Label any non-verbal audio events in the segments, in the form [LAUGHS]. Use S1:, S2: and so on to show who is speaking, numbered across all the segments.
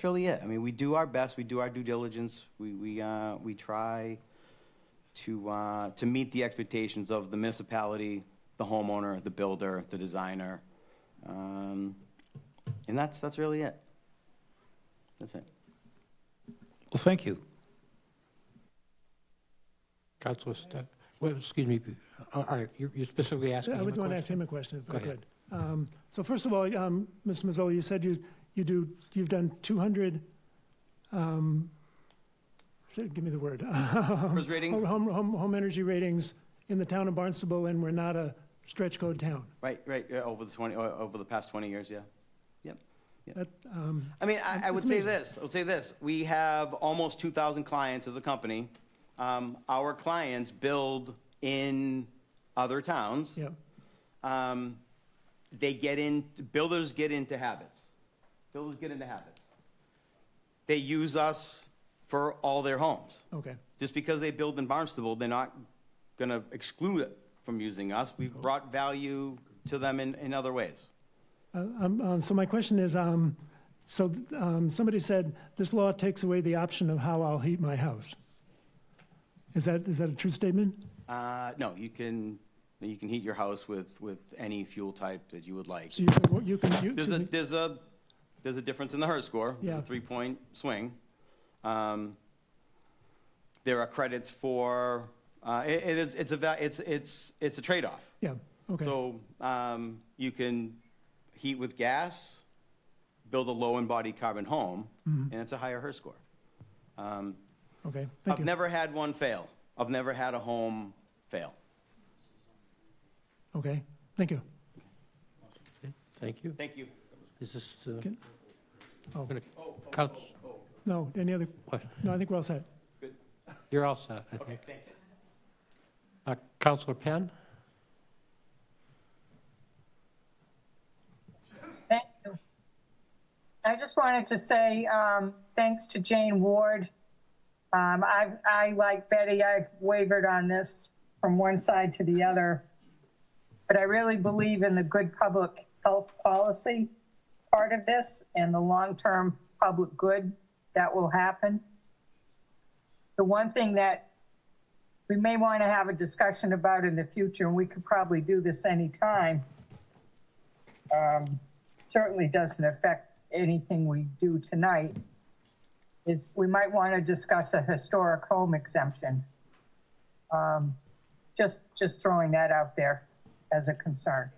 S1: That's really it. I mean, we do our best, we do our due diligence, we, we, uh, we try to, uh, to meet the expectations of the municipality, the homeowner, the builder, the designer. Um, and that's, that's really it. That's it.
S2: Well, thank you.
S3: Counselor Step, well, excuse me, uh, all right, you you specifically asking
S4: I
S3: him a
S4: would want to ask
S3: question?
S4: him a question if
S3: Go
S4: I
S3: ahead.
S4: could. Um, So first of all, um, Mr. Mazzola, you said you, you do, you've done 200, um, say- give me the word. [LAUGHS] Home,
S1: First rating,
S4: home, home home energy ratings in the town of Barnstable, and we're not a stretch code town.
S1: right, right, yeah, over the 20, o- over the past 20 years, yeah.
S4: That, um,
S1: I mean, I, I would
S4: It's
S1: say
S4: amazing.
S1: this, I would say this, we have almost 2,000 clients as a company. Um, Our clients build in other towns.
S4: Yeah,
S1: um, they get in, builders get into habits. Builders get into habits. They use us for all their homes.
S4: okay,
S1: Just because they build in Barnstable, they're not going to exclude it from using us. We've brought value to them in, in other ways.
S4: Uh, um, uh, So my question is, um, so um, somebody said, this law takes away the option of how I'll heat my house. Is that, is that a true statement?
S1: Uh, no, you can, you can heat your house with, with any fuel type that you would like.
S4: So you can, you can, you-
S1: There's
S4: excuse
S1: a,
S4: me.
S1: there's a, there's a difference in the HERS score, There's
S4: Yeah.
S1: a three-point swing. Um, There are credits for, uh, it it is, it's a, va- it's, it's, it's a trade-off.
S4: yeah, okay.
S1: So um, you can heat with gas, build a low-embodied carbon home, and it's a higher HERS score. Um,
S4: Okay, Mm-hmm. thank
S1: I've
S4: you.
S1: never had one fail. I've never had a home fail.
S4: Okay, thank you.
S3: Okay, Thank you.
S1: Thank you.
S3: Is this, uh,
S4: Can- oh.
S3: gonna- Counsel,
S4: No, any other,
S3: what?
S4: no, I think we're all set.
S3: you're all set, I think. Uh, Counselor Penn?
S5: Thank you. I just wanted to say, um, thanks to Jane Ward. Um, I, I, like Betty, I've wavered on this from one side to the other. But I really believe in the good public health policy part of this and the long-term public good that will happen. The one thing that we may want to have a discussion about in the future, and we could probably do this anytime, certainly doesn't affect anything we do tonight, is we might want to discuss a historic home exemption. Um, Just, just throwing that out there as a concern.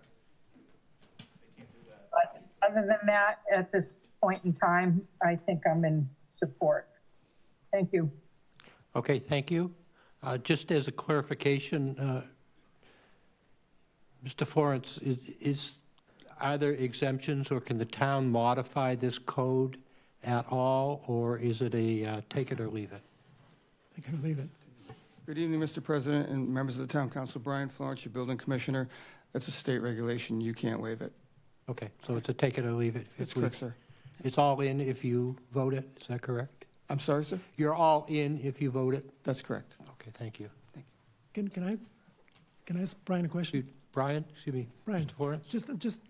S5: But Other than that, at this point in time, I think I'm in support. Thank you.
S3: Okay, thank you. Uh, Just as a clarification, uh, Mr. Florence, i- is, are there exemptions, or can the town modify this code at all, or is it a uh, take it or leave it?
S4: I can leave it.
S6: Good evening, Mr. President and members of the Town Council. Brian Florence, your building commissioner. That's a state regulation. You can't waive it.
S3: Okay, so it's a take it or leave it? if
S6: That's
S3: we-
S6: correct, sir.
S3: It's all in if you vote it, is that correct?
S6: I'm sorry, sir?
S3: You're all in if you vote it?
S6: That's correct.
S3: Okay, thank you.
S4: Can, can I, can I ask Brian a question?
S3: Excuse- Brian, excuse me,
S4: Brian,
S3: Mr. Florence?
S4: just, just,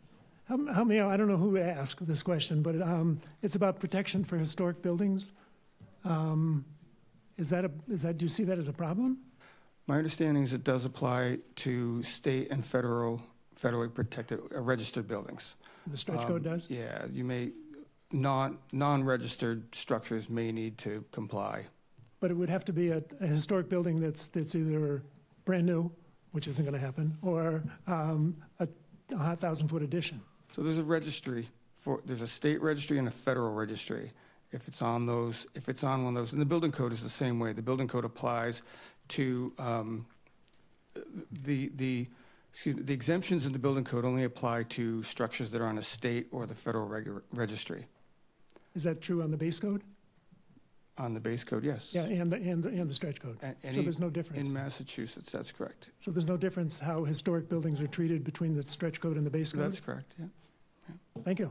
S4: help help me out, I don't know who asked this question, but um, it's about protection for historic buildings. Um, Is that a, is that, do you see that as a problem?
S6: My understanding is it does apply to state and federal, federally protected, uh, registered buildings.
S4: The stretch code
S6: Um,
S4: does?
S6: Yeah, you may, non, non-registered structures may need to comply.
S4: But it would have to be a, a historic building that's, that's either brand new, which isn't going to happen, or um, a 1,000-foot addition.
S6: So there's a registry for, there's a state registry and a federal registry. If it's on those, if it's on one of those, and the building code is the same way. The building code applies to, um, the, the, excuse me, the exemptions in the building code only apply to structures that are on a state or the federal regu- registry.
S4: Is that true on the base code?
S6: On the base code, yes.
S4: Yeah, and, the and, the and the stretch code.
S6: A-
S4: So
S6: any-
S4: there's no difference.
S6: In Massachusetts, that's correct.
S4: So there's no difference how historic buildings are treated between the stretch code and the base code?
S6: That's correct, yeah.
S4: Thank you.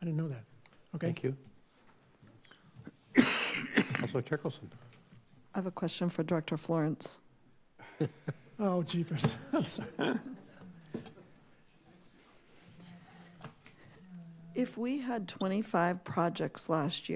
S4: I didn't know that. Okay.
S3: Thank you. [COUGHS] Counselor Turkelson?
S7: I have a question for Director Florence.
S4: Oh, jeepers. I'm sorry.
S7: If we had 25 projects last year.